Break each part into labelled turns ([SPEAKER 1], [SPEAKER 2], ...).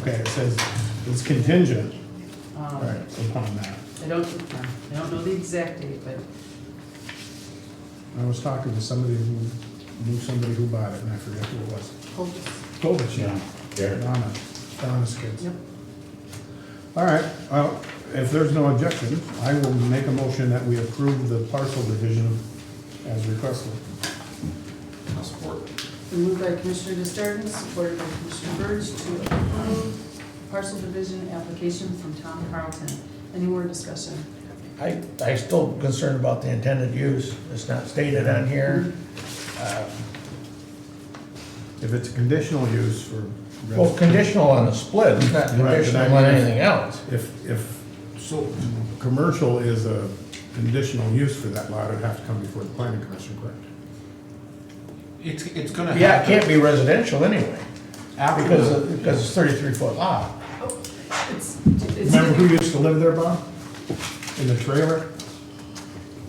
[SPEAKER 1] Okay, it says it's contingent
[SPEAKER 2] Um,
[SPEAKER 1] right, upon that.
[SPEAKER 2] I don't, I don't know the exact date, but
[SPEAKER 1] I was talking to somebody who knew somebody who bought it, and I forget who it was.
[SPEAKER 2] Colchis,
[SPEAKER 1] Kovich, yeah.
[SPEAKER 3] There.
[SPEAKER 1] Donna, Donna's kids.
[SPEAKER 2] yep.
[SPEAKER 1] All right, well, if there's no objection, I will make a motion that we approve the parcel division as requested.
[SPEAKER 4] I'll support.
[SPEAKER 2] Been moved by Commissioner Justardens, supported by Commissioner Birch to approve parcel division application from Tom Carlton. Any more discussion?
[SPEAKER 5] I, I still concerned about the intended use, it's not stated on here. Uh,
[SPEAKER 1] If it's a conditional use for.
[SPEAKER 5] Well, conditional on the split, it's not
[SPEAKER 1] Right, but I
[SPEAKER 5] conditional on
[SPEAKER 1] mean-
[SPEAKER 5] anything else.
[SPEAKER 1] If, if, so, commercial is a conditional use for that lot, it'd have to come before the planning commission, correct?
[SPEAKER 4] It's, it's gonna happen.
[SPEAKER 5] Yeah, it can't be residential anyway,
[SPEAKER 4] After
[SPEAKER 5] because,
[SPEAKER 4] the,
[SPEAKER 5] of- because it's thirty-three foot lot.
[SPEAKER 2] Oh, It's,
[SPEAKER 1] Remember
[SPEAKER 2] it's,
[SPEAKER 1] who used to live there, Bob? In the trailer?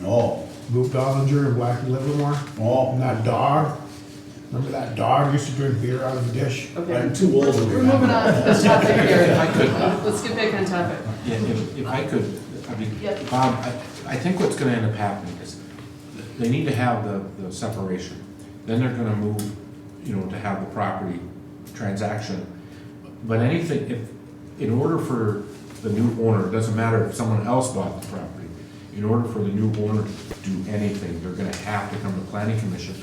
[SPEAKER 3] No,
[SPEAKER 1] Lou Dollinger and Blackie Livermore?
[SPEAKER 3] no,
[SPEAKER 1] And that dog? Remember that dog used to drink beer out of a dish?
[SPEAKER 2] okay.
[SPEAKER 3] I'm too old to
[SPEAKER 2] We're moving
[SPEAKER 3] remember.
[SPEAKER 2] on to the topic here.
[SPEAKER 4] I could-
[SPEAKER 2] Let's get back on topic.
[SPEAKER 4] yeah, if, if I could, I mean,
[SPEAKER 2] Yep.
[SPEAKER 4] Bob, I, I think what's gonna end up happening is they need to have the, the separation. Then they're gonna move, you know, to have the property transaction. But anything, if, in order for the new owner, it doesn't matter if someone else bought the property, in order for the new owner to do anything, they're gonna have to come to planning commission.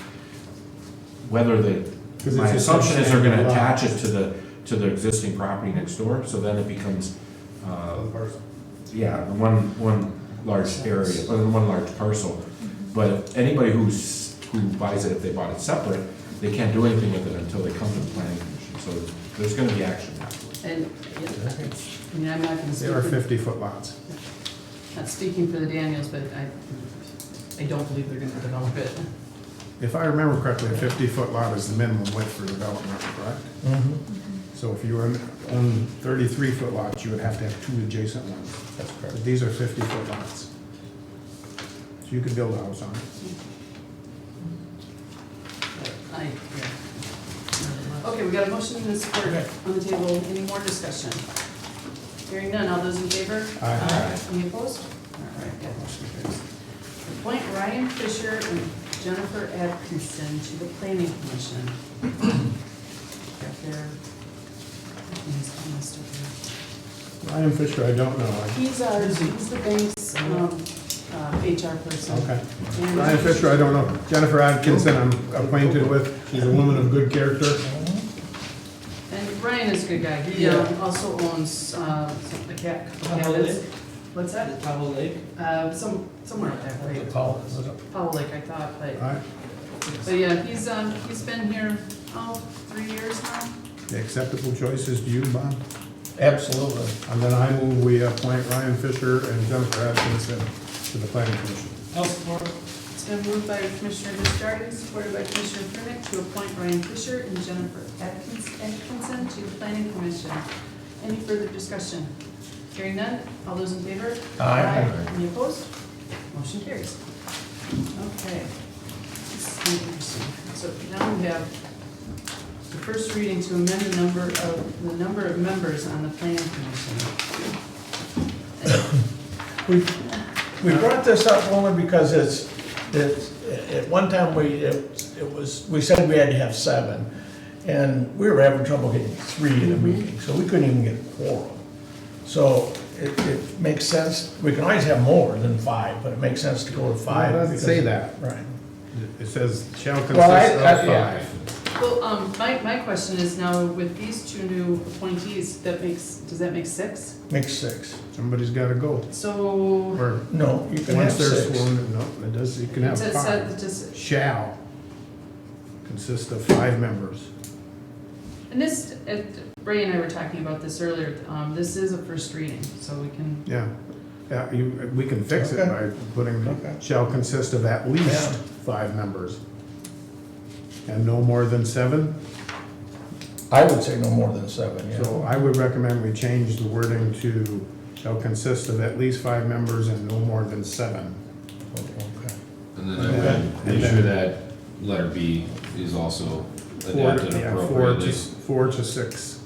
[SPEAKER 4] Whether they,
[SPEAKER 1] 'Cause
[SPEAKER 4] my
[SPEAKER 1] it's a
[SPEAKER 4] assumption is they're gonna
[SPEAKER 1] substantial lot.
[SPEAKER 4] attach it to the, to the existing property next door, so then it becomes, uh, yeah, the one, one large area, or the one large parcel. But anybody who's, who buys it, if they bought it separate, they can't do anything with it until they come to the planning commission. So there's gonna be action afterwards.
[SPEAKER 2] And, yeah, it's- I mean, I'm not gonna
[SPEAKER 1] They
[SPEAKER 2] speak,
[SPEAKER 1] are
[SPEAKER 2] for-
[SPEAKER 1] fifty-foot lots.
[SPEAKER 2] not speaking for the Daniels, but I, I don't believe they're gonna develop it.
[SPEAKER 1] If I remember correctly, a fifty-foot lot is the minimum width for development, correct?
[SPEAKER 5] Mhm.
[SPEAKER 1] So if you were on thirty-three foot lots, you would have to have two adjacent ones.
[SPEAKER 5] That's correct.
[SPEAKER 1] But these are fifty-foot lots. So you could build a house on it.
[SPEAKER 2] I, yeah. Okay, we got a motion and a support on the table. Any more discussion? Hearing none. All those in favor?
[SPEAKER 1] Aye.
[SPEAKER 2] Any opposed? All right, that motion carries. Appoint Ryan Fisher and Jennifer Atkinson to the planning commission. Got their names on this document.
[SPEAKER 1] Ryan Fisher, I don't know. I-
[SPEAKER 2] He's our, he's the bank's, um, uh, HR person.
[SPEAKER 1] Okay.
[SPEAKER 2] And-
[SPEAKER 1] Ryan Fisher, I don't know. Jennifer Atkinson, I'm acquainted with. She's a woman of good character.
[SPEAKER 2] And Brian is a good guy, he um, also owns, uh, some- the cat,
[SPEAKER 6] Powell
[SPEAKER 2] cabins.
[SPEAKER 6] Lake?
[SPEAKER 2] What's
[SPEAKER 6] The
[SPEAKER 2] that?
[SPEAKER 6] Powell Lake?
[SPEAKER 2] Uh, some, somewhere up there,
[SPEAKER 5] That's a
[SPEAKER 2] right?
[SPEAKER 5] call, is it?
[SPEAKER 2] Powell Lake, I thought, but,
[SPEAKER 1] Aye.
[SPEAKER 2] but yeah, he's, um, he's been here, oh, three years now?
[SPEAKER 1] The acceptable choice is to you, Bob.
[SPEAKER 5] Absolutely.
[SPEAKER 1] And then I move we appoint Ryan Fisher and Jennifer Atkinson to the planning commission.
[SPEAKER 6] I'll support.
[SPEAKER 2] It's been moved by Commissioner Justardens, supported by Commissioner Prunick, to appoint Brian Fisher and Jennifer Atkins- Atkinson to the planning commission. Any further discussion? Hearing none, all those in favor?
[SPEAKER 5] Aye.
[SPEAKER 2] Any opposed? Motion carries. Okay. This is interesting. So now we have the first reading to amend the number of, the number of members on the planning commission.
[SPEAKER 5] We, we brought this up only because it's, it's, at one time we, it it was, we said we had to have seven. And we were having trouble getting three in a
[SPEAKER 1] Mm-hmm.
[SPEAKER 5] meeting, so we couldn't even get a quorum. So it, it makes sense, we can always have more than five, but it makes sense to go to five.
[SPEAKER 1] Well, it doesn't
[SPEAKER 5] because-
[SPEAKER 1] say that.
[SPEAKER 5] Right.
[SPEAKER 1] It says shall consist
[SPEAKER 5] Well, I-
[SPEAKER 1] of
[SPEAKER 5] I- yeah.
[SPEAKER 1] five.
[SPEAKER 2] Well, um, my, my question is now with these two new appointees, that makes, does that make six?
[SPEAKER 5] Makes six.
[SPEAKER 1] Somebody's gotta go.
[SPEAKER 2] So,
[SPEAKER 1] Or
[SPEAKER 5] No, you can have
[SPEAKER 1] once they're
[SPEAKER 5] six.
[SPEAKER 1] sworn, no, it does, you can
[SPEAKER 2] it
[SPEAKER 1] have
[SPEAKER 2] says,
[SPEAKER 1] five.
[SPEAKER 2] said- just,
[SPEAKER 1] Shall consist of five members.
[SPEAKER 2] and this, it- Ray and I were talking about this earlier, um, this is a first reading, so we can,
[SPEAKER 1] Yeah, yeah, you, we can fix it by
[SPEAKER 5] Okay.
[SPEAKER 1] putting, shall consist of at least
[SPEAKER 5] Yeah.
[SPEAKER 1] five members. And no more than seven,
[SPEAKER 5] I would say no more than seven, yeah.
[SPEAKER 1] so I would recommend we change the wording to shall consist of at least five members and no more than seven.
[SPEAKER 5] Okay.
[SPEAKER 7] And then I would make sure that letter B is also
[SPEAKER 1] Four,
[SPEAKER 7] adapted
[SPEAKER 1] yeah, four to,
[SPEAKER 7] appropriately.
[SPEAKER 1] s- four to six